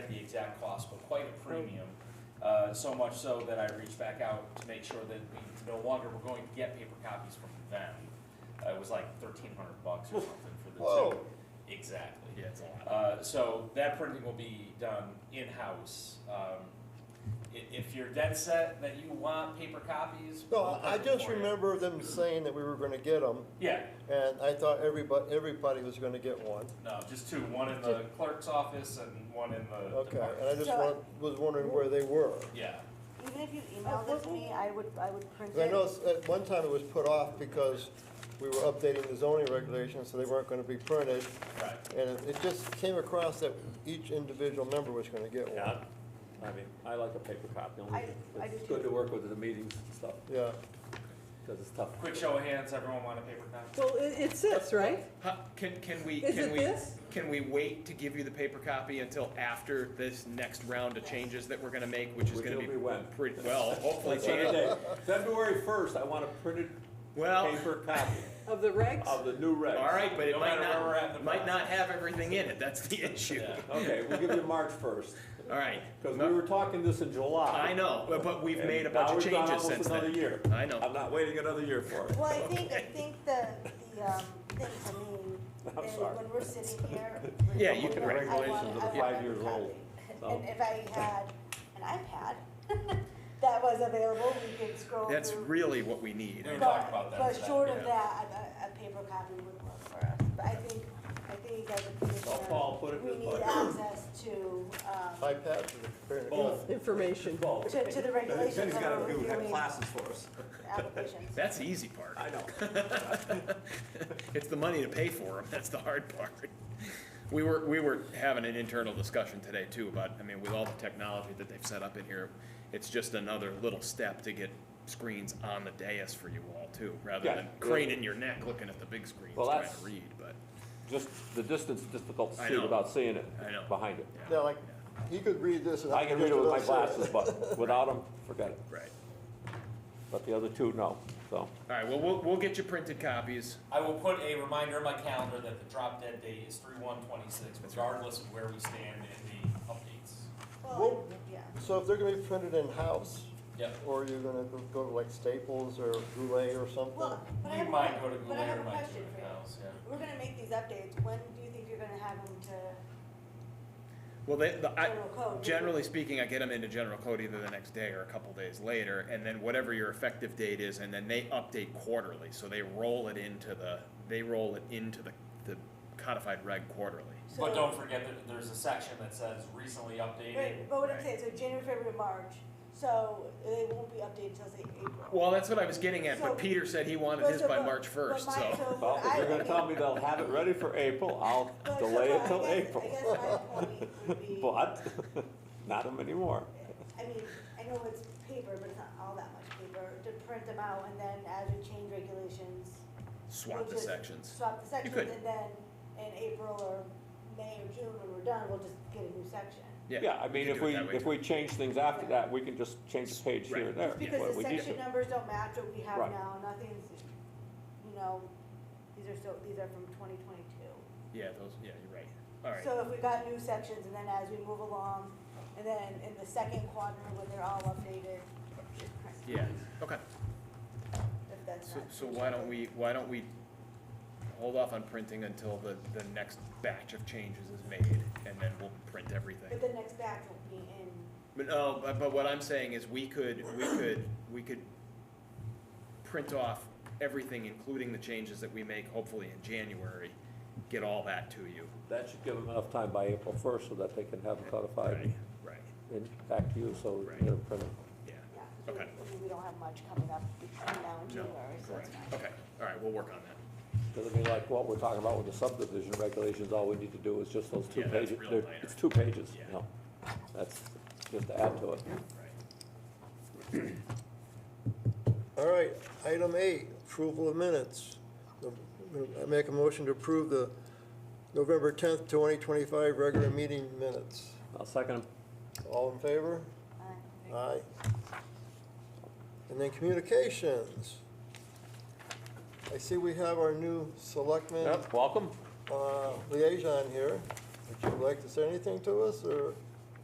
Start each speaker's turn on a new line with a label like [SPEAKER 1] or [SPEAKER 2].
[SPEAKER 1] exact cost, but quite a premium. Uh, so much so that I reached back out to make sure that we no longer were going to get paper copies from them. Uh, it was like thirteen hundred bucks or something for the two.
[SPEAKER 2] Whoa.
[SPEAKER 1] Exactly.
[SPEAKER 3] Yeah, it's a lot.
[SPEAKER 1] Uh, so that printing will be done in-house. Um, i- if you're dead set that you want paper copies.
[SPEAKER 2] No,
[SPEAKER 1] we'll
[SPEAKER 2] I I
[SPEAKER 1] print them
[SPEAKER 2] just
[SPEAKER 1] for you.
[SPEAKER 2] remember them saying that we were gonna get them,
[SPEAKER 1] Yeah,
[SPEAKER 2] and I thought everybody, everybody was gonna get one.
[SPEAKER 1] no, just two, one in the clerk's office and one in the
[SPEAKER 2] Okay, and I
[SPEAKER 1] department.
[SPEAKER 2] just
[SPEAKER 4] So-
[SPEAKER 2] wa- was wondering where they were.
[SPEAKER 1] Yeah,
[SPEAKER 4] Even if you emailed it to me, I would, I would print
[SPEAKER 2] 'Cause I
[SPEAKER 4] it.
[SPEAKER 2] know s- at one time it was put off because we were updating the zoning regulations, so they weren't gonna be printed.
[SPEAKER 1] right.
[SPEAKER 2] And it- it just came across that each individual member was gonna get
[SPEAKER 5] Yeah,
[SPEAKER 2] one.
[SPEAKER 5] I mean, I like a paper copy, only
[SPEAKER 4] I- I do
[SPEAKER 5] it's
[SPEAKER 4] too.
[SPEAKER 5] good to work with at the meetings and stuff,
[SPEAKER 2] Yeah,
[SPEAKER 5] because it's tough.
[SPEAKER 1] Quick show of hands, everyone want a paper copy?
[SPEAKER 6] Well, it, it's this, right?
[SPEAKER 3] Huh, Can, can we,
[SPEAKER 6] Is
[SPEAKER 3] can
[SPEAKER 6] it
[SPEAKER 3] we,
[SPEAKER 6] this?
[SPEAKER 3] can we wait to give you the paper copy until after this next round of changes that we're gonna make, which is
[SPEAKER 5] Which
[SPEAKER 3] gonna
[SPEAKER 5] will
[SPEAKER 3] be
[SPEAKER 5] be when?
[SPEAKER 3] pretty, well, hopefully
[SPEAKER 5] That's another
[SPEAKER 3] change.
[SPEAKER 5] day. February first, I want a printed
[SPEAKER 3] Well,
[SPEAKER 5] paper copy
[SPEAKER 6] Of the regs?
[SPEAKER 5] of the new regs.
[SPEAKER 3] all right, but it
[SPEAKER 1] No
[SPEAKER 3] might
[SPEAKER 1] matter where we're at in the
[SPEAKER 3] not, might not
[SPEAKER 1] process.
[SPEAKER 3] have everything in it, that's the issue.
[SPEAKER 1] Yeah.
[SPEAKER 5] Okay, we'll give you March first,
[SPEAKER 3] All right,
[SPEAKER 5] because we were talking this in July.
[SPEAKER 3] I know, but- but we've
[SPEAKER 5] and
[SPEAKER 3] made a
[SPEAKER 5] now
[SPEAKER 3] bunch of
[SPEAKER 5] we've gone
[SPEAKER 3] changes
[SPEAKER 5] almost
[SPEAKER 3] since
[SPEAKER 5] Another
[SPEAKER 3] then.
[SPEAKER 5] year.
[SPEAKER 3] I
[SPEAKER 5] I'm
[SPEAKER 3] know.
[SPEAKER 5] not waiting another year for it.
[SPEAKER 4] Well, I think, I think the, the, um, thing to me,
[SPEAKER 5] I'm
[SPEAKER 4] is
[SPEAKER 5] sorry.
[SPEAKER 4] when we're sitting here.
[SPEAKER 3] Yeah, you can
[SPEAKER 4] I want-
[SPEAKER 3] write.
[SPEAKER 4] I want-
[SPEAKER 5] Regulations of
[SPEAKER 4] I
[SPEAKER 5] the
[SPEAKER 4] want
[SPEAKER 5] five
[SPEAKER 4] every
[SPEAKER 5] years old,
[SPEAKER 4] copy.
[SPEAKER 5] so.
[SPEAKER 4] And if I had an iPad that was available, we could scroll through.
[SPEAKER 3] that's really what we need.
[SPEAKER 1] We were
[SPEAKER 4] But-
[SPEAKER 1] talking about that.
[SPEAKER 4] But
[SPEAKER 1] today.
[SPEAKER 4] short
[SPEAKER 3] yeah.
[SPEAKER 4] of that, a, a- a paper copy would work for us, but I think, I think you guys are pretty
[SPEAKER 5] Well,
[SPEAKER 4] sure
[SPEAKER 5] Paul, put it in
[SPEAKER 4] We
[SPEAKER 5] his
[SPEAKER 4] need
[SPEAKER 5] bucket.
[SPEAKER 4] access to, um,
[SPEAKER 2] iPads is apparently.
[SPEAKER 5] Both.
[SPEAKER 6] Information.
[SPEAKER 5] Both.
[SPEAKER 4] to, to the regulations
[SPEAKER 5] Jenny's
[SPEAKER 4] that
[SPEAKER 5] gotta
[SPEAKER 4] are
[SPEAKER 5] do the
[SPEAKER 4] reviewing
[SPEAKER 5] classes for us,
[SPEAKER 4] applications.
[SPEAKER 3] That's the easy part.
[SPEAKER 5] I know.
[SPEAKER 3] It's the money to pay for them, that's the hard part. We were, we were having an internal discussion today too about, I mean, with all the technology that they've set up in here, it's just another little step to get screens on the dais for you all too, rather
[SPEAKER 5] Yeah.
[SPEAKER 3] than craning your neck looking at the big screens
[SPEAKER 5] Well,
[SPEAKER 3] trying
[SPEAKER 5] that's-
[SPEAKER 3] to read, but,
[SPEAKER 5] Just the distance, difficult to
[SPEAKER 3] I
[SPEAKER 5] see
[SPEAKER 3] know.
[SPEAKER 5] without seeing it,
[SPEAKER 3] I know.
[SPEAKER 5] behind it.
[SPEAKER 2] Yeah,
[SPEAKER 3] yeah,
[SPEAKER 2] like, he could read this and
[SPEAKER 5] I
[SPEAKER 2] I
[SPEAKER 5] can
[SPEAKER 2] could
[SPEAKER 5] read
[SPEAKER 2] just
[SPEAKER 5] it with my
[SPEAKER 2] about say
[SPEAKER 5] glasses, but without them, forget it.
[SPEAKER 3] right.
[SPEAKER 5] But the other two, no, so.
[SPEAKER 3] All right, well, we'll, we'll get you printed copies.
[SPEAKER 1] I will put a reminder in my calendar that the drop dead date is three one twenty-six, regardless of where we stand in the updates.
[SPEAKER 4] Well,
[SPEAKER 2] Well-
[SPEAKER 4] yeah.
[SPEAKER 2] So if they're gonna be printed in-house,
[SPEAKER 1] Yep.
[SPEAKER 2] or you're gonna go- go to like Staples or Goulet or something?
[SPEAKER 4] Well, but I
[SPEAKER 1] We
[SPEAKER 4] have a,
[SPEAKER 1] might go to
[SPEAKER 4] que- but I
[SPEAKER 1] Goulet
[SPEAKER 4] have a
[SPEAKER 1] or might do
[SPEAKER 4] question
[SPEAKER 1] it
[SPEAKER 4] for you.
[SPEAKER 1] in-house, yeah.
[SPEAKER 4] We're gonna make these updates, when do you think you're gonna have them to
[SPEAKER 3] Well, they, the, I,
[SPEAKER 4] general code?
[SPEAKER 3] Generally speaking, I get them into general code either the next day or a couple days later, and then whatever your effective date is, and then they update quarterly, so they roll it into the, they roll it into the, the codified reg quarterly.
[SPEAKER 4] So-
[SPEAKER 1] But don't forget that there's a section that says recently updated.
[SPEAKER 4] Right, but what I'm
[SPEAKER 3] Right.
[SPEAKER 4] saying, so January, February, March, so they won't be updated till say April.
[SPEAKER 3] Well, that's what I was getting at,
[SPEAKER 4] So-
[SPEAKER 3] but Peter said he wanted
[SPEAKER 4] Well,
[SPEAKER 3] his
[SPEAKER 4] so
[SPEAKER 3] by
[SPEAKER 4] but-
[SPEAKER 3] March
[SPEAKER 4] but
[SPEAKER 3] first,
[SPEAKER 4] my-
[SPEAKER 3] so.
[SPEAKER 5] Well,
[SPEAKER 4] what
[SPEAKER 5] if
[SPEAKER 4] I
[SPEAKER 5] you're gonna
[SPEAKER 4] would-
[SPEAKER 5] tell me they'll have it ready for April, I'll
[SPEAKER 4] but so
[SPEAKER 5] delay it
[SPEAKER 4] I
[SPEAKER 5] till
[SPEAKER 4] guess-
[SPEAKER 5] April.
[SPEAKER 4] I guess my point would be,
[SPEAKER 5] But, not them anymore.
[SPEAKER 4] I mean, I know it's paper, but it's not all that much paper, to print them out and then as we change regulations,
[SPEAKER 3] Swap the
[SPEAKER 4] just
[SPEAKER 3] sections.
[SPEAKER 4] swap the sections
[SPEAKER 3] could.
[SPEAKER 4] and then in April or May or June when we're done, we'll just get a new section.
[SPEAKER 5] Yeah, I
[SPEAKER 3] you
[SPEAKER 5] mean,
[SPEAKER 3] can
[SPEAKER 5] if
[SPEAKER 3] do it
[SPEAKER 5] we,
[SPEAKER 3] that way
[SPEAKER 5] if
[SPEAKER 3] too.
[SPEAKER 5] we change things after that, we can just change the page here and there.
[SPEAKER 4] Just because
[SPEAKER 5] what
[SPEAKER 4] the
[SPEAKER 5] we need
[SPEAKER 4] section
[SPEAKER 5] to.
[SPEAKER 4] numbers don't match what we have
[SPEAKER 5] Right.
[SPEAKER 4] now, nothing's, you know, these are still, these are from twenty twenty-two.
[SPEAKER 3] Yeah, those, yeah, you're right, all right.
[SPEAKER 4] So if we got new sections and then as we move along, and then in the second quadrant when they're all updated,
[SPEAKER 3] Yeah, okay,
[SPEAKER 4] if that's
[SPEAKER 3] so,
[SPEAKER 4] not.
[SPEAKER 3] so why don't we, why don't we hold off on printing until the, the next batch of changes is made, and then we'll print everything?
[SPEAKER 4] But the next batch will be in,
[SPEAKER 3] But no, but, but what I'm saying is we could, we could, we could print off everything, including the changes that we make, hopefully in January, get all that to you.
[SPEAKER 5] That should give them enough time by April first so that they can have it
[SPEAKER 3] Right,
[SPEAKER 5] codified
[SPEAKER 3] right,
[SPEAKER 5] and back to you, so
[SPEAKER 3] Right.
[SPEAKER 5] they're printed.
[SPEAKER 3] yeah.
[SPEAKER 4] yeah, 'cause we-
[SPEAKER 3] Okay.
[SPEAKER 4] I mean, we don't have much coming up between now and
[SPEAKER 3] No,
[SPEAKER 4] January, so
[SPEAKER 3] correct.
[SPEAKER 4] it's fine.
[SPEAKER 3] Okay, all right, we'll work on that.
[SPEAKER 5] Because I mean, like what we're talking about with the subdivision regulations, all we need to do is just those two
[SPEAKER 3] Yeah, that's
[SPEAKER 5] pages.
[SPEAKER 3] real
[SPEAKER 5] They're-
[SPEAKER 3] minor.
[SPEAKER 5] It's two pages,
[SPEAKER 3] Yeah.
[SPEAKER 5] you know. That's just to add to it.
[SPEAKER 3] Right.
[SPEAKER 2] All right, item eight, approval of minutes. I make a motion to approve the November tenth, twenty twenty-five regular meeting minutes.
[SPEAKER 5] I'll second 'em.
[SPEAKER 2] All in favor?
[SPEAKER 4] Uh,
[SPEAKER 2] Aye. And then communications. I see we have our new selectman
[SPEAKER 5] Yep, welcome.
[SPEAKER 2] uh, liaison here. Would you like to say anything to us, or?